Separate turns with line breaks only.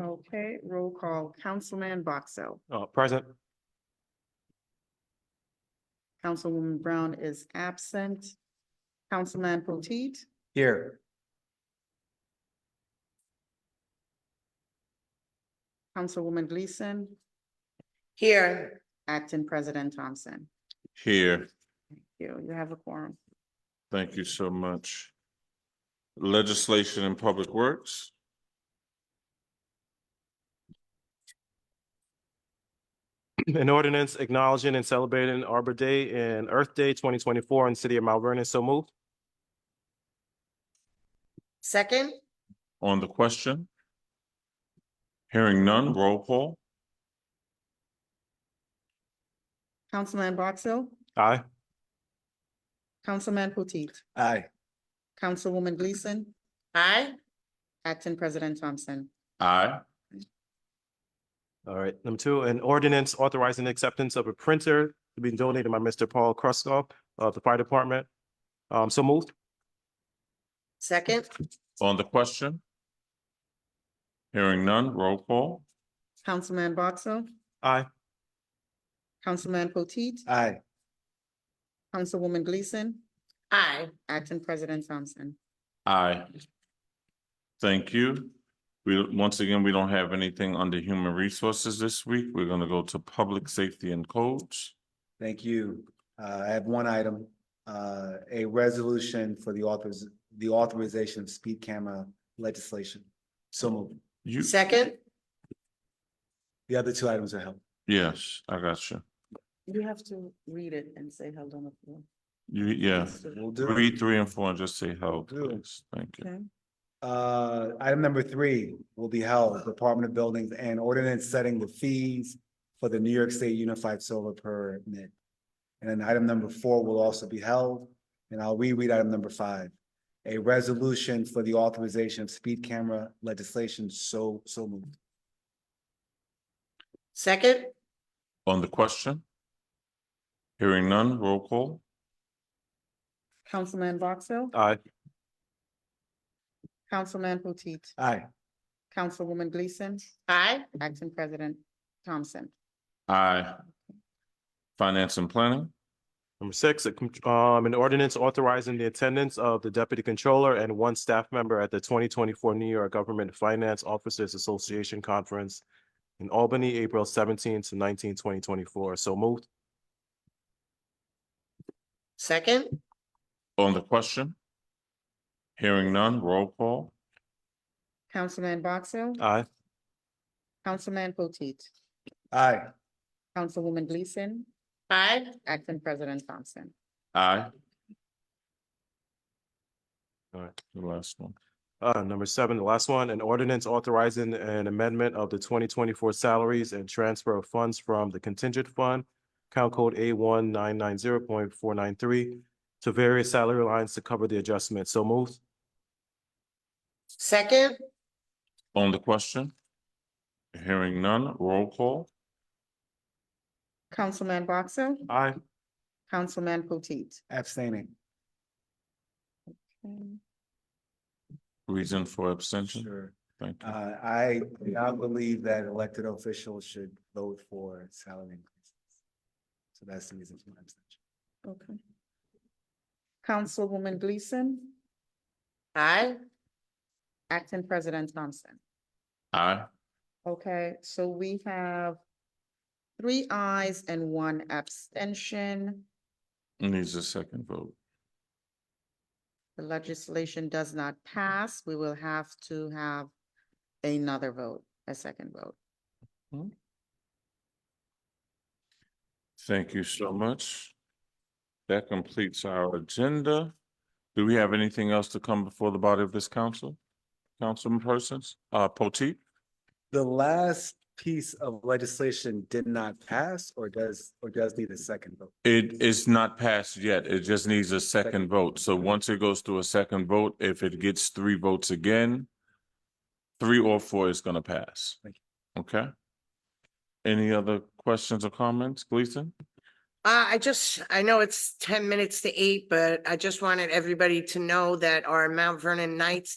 Okay, roll call, Councilman Boxell.
Uh, present.
Councilwoman Brown is absent. Councilman Potteet,
Here.
Councilwoman Gleason,
Here.
Acting President Thompson.
Here,
Thank You, you have a quorum.
thank you so much. Legislation and Public Works,
An ordinance acknowledging and celebrating Arbor Day and Earth Day twenty twenty-four in the city of Mount Vernon. So moved.
Second?
on the question? Hearing none, roll call.
Councilman Boxell,
Aye.
Councilman Potteet,
Aye.
Councilwoman Gleason,
Aye.
Acting President Thompson.
Aye.
All right. Number two, an ordinance authorizing the acceptance of a printer to be donated by Mr. Paul Kruskoff of the Fire Department. Um, so moved.
Second?
On the question? Hearing none, roll call.
Councilman Boxell,
Aye.
Councilman Potteet,
Aye.
Councilwoman Gleason,
Aye.
Acting President Thompson.
Aye. Thank you. We, once again, we don't have anything under Human Resources this week. We're gonna go to Public Safety and Codes.
Thank you. Uh, I have one item, uh, a resolution for the authors, the authorization of speed camera legislation. So moved.
You,
Second?
The other two items are held.
yes, I got you.
You have to read it and say held on the floor.
You, yeah.
We'll do it.
Read three and four and just say held,
Do it.
please. Thank you.
Okay.
Uh, item number three will be held, Department of Buildings and Ordinance setting the fees for the New York State Unified Solar Permit. And then item number four will also be held, and I'll reread item number five. A resolution for the authorization of speed camera legislation, so, so moved.
Second?
On the question? Hearing none, roll call.
Councilman Boxell,
Aye.
Councilman Potteet,
Aye.
Councilwoman Gleason,
Aye.
Acting President Thompson.
Aye. Finance and Planning,
Number six, a con- um, an ordinance authorizing the attendance of the deputy controller and one staff member at the twenty twenty-four New York Government Finance Officers Association Conference in Albany, April seventeenth to 19, 2024. So moved.
Second?
on the question? Hearing none, roll call.
Councilman Boxell,
Aye.
Councilman Potteet,
Aye.
Councilwoman Gleason,
Aye.
Acting President Thompson.
Aye.
All right.
The last one.
Uh, number seven, the last one, an ordinance authorizing an amendment of the twenty twenty-four salaries and transfer of funds from the contingent fund, count code A one nine nine zero point four nine three, to various salary lines to cover the adjustment. So moved.
Second?
On the question? Hearing none, roll call.
Councilman Boxell,
Aye.
Councilman Potteet.
Abstaining.
Reason for abstention,
Sure.
thank you.
Uh, I, I believe that elected officials should vote for salary increases. So that's the reason for my abstention.
Okay. Councilwoman Gleason,
Aye.
Acting President Thompson.
Aye.
Okay, so we have three ayes and one abstention.
Needs a second vote.
The legislation does not pass. We will have to have another vote, a second vote.
Thank you so much. That completes our agenda. Do we have anything else to come before the body of this council? Councilman Persons, uh, Potteet?
The last piece of legislation did not pass or does, or does need a second vote?
It is not passed yet. It just needs a second vote. So once it goes through a second vote, if it gets three votes again, three or four is gonna pass.
Thank
Okay? Any other questions or comments, Gleason?
Uh, I just, I know it's ten minutes to eight, but I just wanted everybody to know that our Mount Vernon Knights